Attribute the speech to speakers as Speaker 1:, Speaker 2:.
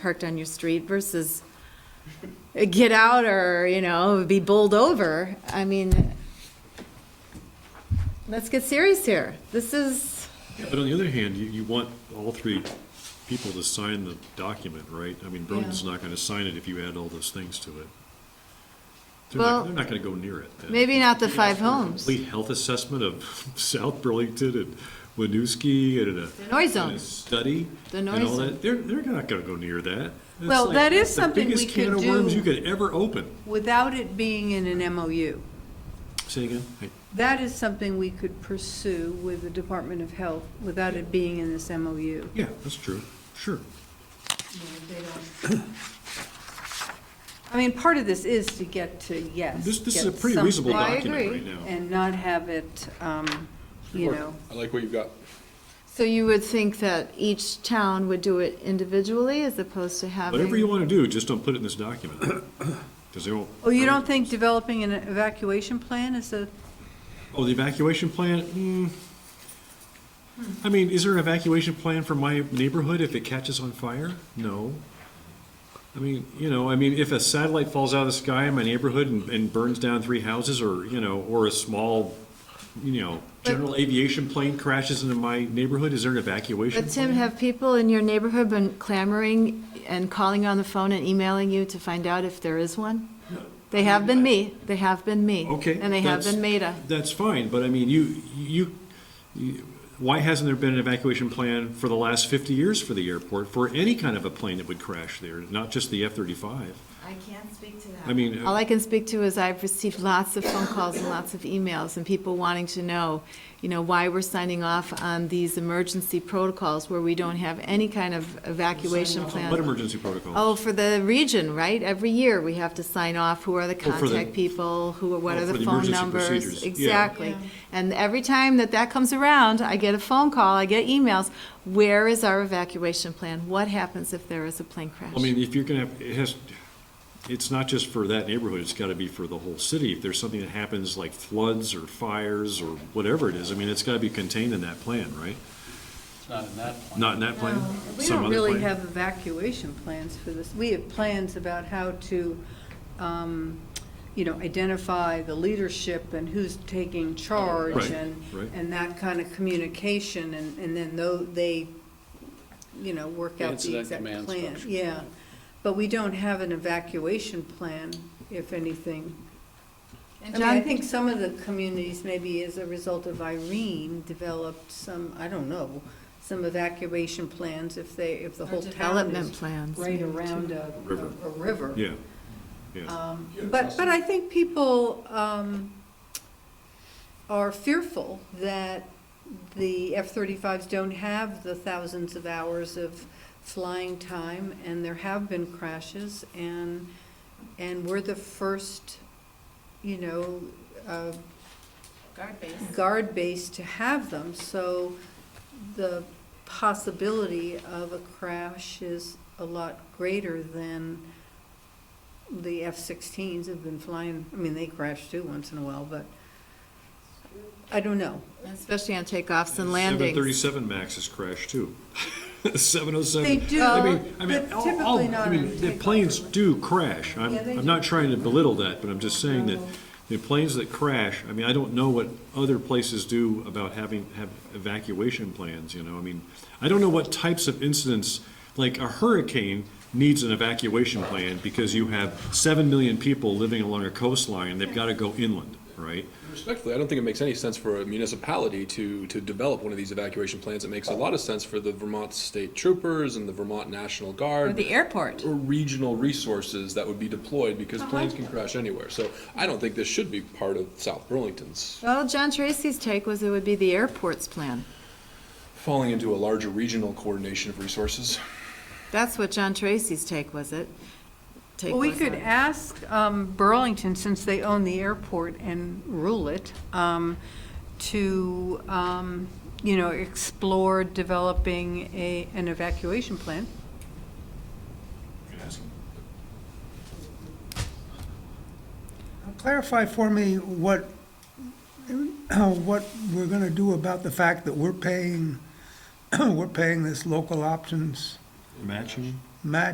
Speaker 1: parked on your street versus get out or, you know, be bowled over. I mean, let's get serious here. This is,
Speaker 2: But on the other hand, you, you want all three people to sign the document, right? I mean, Broden's not gonna sign it if you add all those things to it. They're
Speaker 1: Well,
Speaker 2: not, they're not gonna go near it then.
Speaker 1: maybe not the five homes.
Speaker 2: Complete health assessment of South Burlington and Winooski and a.
Speaker 1: noise
Speaker 2: and
Speaker 1: zone.
Speaker 2: a Study.
Speaker 1: The
Speaker 2: and
Speaker 1: noise
Speaker 2: all
Speaker 1: zone.
Speaker 2: that. They're, they're not gonna go near that. It's
Speaker 3: Well,
Speaker 2: like
Speaker 3: that is something we
Speaker 2: The biggest can
Speaker 3: could
Speaker 2: of worms
Speaker 3: do.
Speaker 2: you could ever open.
Speaker 3: without it being in an MOU.
Speaker 2: Say again? Hey.
Speaker 3: That is something we could pursue with the Department of Health without it being in this MOU.
Speaker 2: Yeah, that's true, sure.
Speaker 3: I mean, part of this is to get to, yes.
Speaker 2: This, this is a
Speaker 3: get
Speaker 2: pretty reasonable
Speaker 3: something
Speaker 1: I
Speaker 2: document
Speaker 1: agree.
Speaker 2: right now.
Speaker 3: And not have it, um, you know,
Speaker 4: I like what you've got.
Speaker 1: So you would think that each town would do it individually as opposed to having?
Speaker 2: Whatever you wanna do, just don't put it in this document, because they won't.
Speaker 3: oh, you don't think developing an evacuation plan is a,
Speaker 2: Oh, the evacuation plan, hmm. I mean, is there an evacuation plan for my neighborhood if it catches on fire? No. I mean, you know, I mean, if a satellite falls out of the sky in my neighborhood and, and burns down three houses, or, you know, or a small, you know, general aviation plane crashes into my neighborhood, is there an evacuation?
Speaker 1: But Tim,
Speaker 2: plan?
Speaker 1: have people in your neighborhood been clamoring and calling on the phone and emailing you to find out if there is one? They have been me, they have been me.
Speaker 2: Okay.
Speaker 1: And they have
Speaker 2: that's-
Speaker 1: been Maida.
Speaker 2: That's fine, but I mean, you, you, you- why hasn't there been an evacuation plan for the last fifty years for the airport, for any kind of a plane that would crash there, not just the F thirty-five?
Speaker 5: I can't speak to that.
Speaker 2: I mean,
Speaker 1: All I can speak to is I've received lots of phone calls and lots of emails and people wanting to know, you know, why we're signing off on these emergency protocols where we don't have any kind of evacuation plan.
Speaker 2: what emergency protocol?
Speaker 1: Oh, for the region, right? Every year, we have to sign off, who are the
Speaker 2: Oh, for the-
Speaker 1: contact people, who, are what
Speaker 2: Oh,
Speaker 1: are
Speaker 2: for
Speaker 1: the
Speaker 2: the
Speaker 1: phone
Speaker 2: emergency
Speaker 1: numbers?
Speaker 2: procedures. Yeah.
Speaker 1: Exactly. And every time that that comes around, I get a phone call, I get emails, where is our evacuation plan? What happens if there is a plane crash?
Speaker 2: I mean, if you're gonna have, it has, it's not just for that neighborhood, it's gotta be for the whole city. If there's something that happens like floods or fires or whatever it is, I mean, it's gotta be contained in that plan, right?
Speaker 6: It's not in that plan.
Speaker 2: Not in that plan?
Speaker 3: we
Speaker 2: Some
Speaker 3: don't
Speaker 2: other
Speaker 3: really
Speaker 2: plan?
Speaker 3: have evacuation plans for this. We have plans about how to, um, you know, identify the leadership and who's taking charge
Speaker 2: Right,
Speaker 3: and,
Speaker 2: right.
Speaker 3: and that kind of communication, and, and then though they, you know, work out the
Speaker 6: Incident
Speaker 3: exact
Speaker 6: command
Speaker 3: plan.
Speaker 6: structure.
Speaker 3: Yeah, but we don't have an evacuation plan, if anything. I mean, I
Speaker 1: John-
Speaker 3: think some of the communities, maybe as a result of Irene, developed some, I don't know, some evacuation plans if they, if the
Speaker 1: Or
Speaker 3: whole town
Speaker 1: development
Speaker 3: is
Speaker 1: plans,
Speaker 3: right
Speaker 1: maybe,
Speaker 3: around
Speaker 1: too.
Speaker 3: a,
Speaker 2: River.
Speaker 3: a river.
Speaker 2: Yeah, yeah.
Speaker 3: Um, But, but I think people um, are fearful that the F-35s don't have the thousands of hours of flying time, and there have been crashes, and, and we're the first, you know, uh,
Speaker 5: Guard base.
Speaker 3: guard base to have them, so the possibility of a crash is a lot greater than the F-16s have been flying, I mean, they crash too once in a while, but I don't know.
Speaker 1: Especially on takeoffs and landings.
Speaker 2: 737 MAX has crashed too. 707.
Speaker 3: They do,
Speaker 2: I mean, I mean,
Speaker 3: but
Speaker 2: all-
Speaker 3: typically
Speaker 2: all-
Speaker 3: not
Speaker 2: I
Speaker 3: on
Speaker 2: mean, the
Speaker 3: takeoff.
Speaker 2: planes do crash. I'm,
Speaker 3: Yeah, they
Speaker 2: I'm not trying to belittle that, but I'm just saying that the planes that crash, I mean, I don't know what other places do about having, have evacuation plans, you know? I mean, I don't know what types of incidents, like a hurricane needs an evacuation plan because you have 7 million people living along a coastline, they've got to go inland, right?
Speaker 4: Respectfully, I don't think it makes any sense for a municipality to, to develop one of these evacuation plans. It makes a lot of sense for the Vermont State Troopers and the Vermont National Guard.
Speaker 1: airport.
Speaker 4: or regional resources that would be deployed because planes can crash anywhere. So I don't think this should be part of South Burlington's
Speaker 1: Well, John Tracy's take was it would be the airport's plan.
Speaker 4: falling into a larger regional coordination of resources.
Speaker 1: That's what John Tracy's take was it. Take
Speaker 3: Well, we
Speaker 1: was on
Speaker 3: could
Speaker 1: it.
Speaker 3: ask um, Burlington, since they own the airport and rule it, um, to, um, you know, explore developing a, an evacuation plan.
Speaker 7: Clarify for me what, what we're going to do about the fact that we're paying, we're paying this local options
Speaker 2: Matching.
Speaker 7: match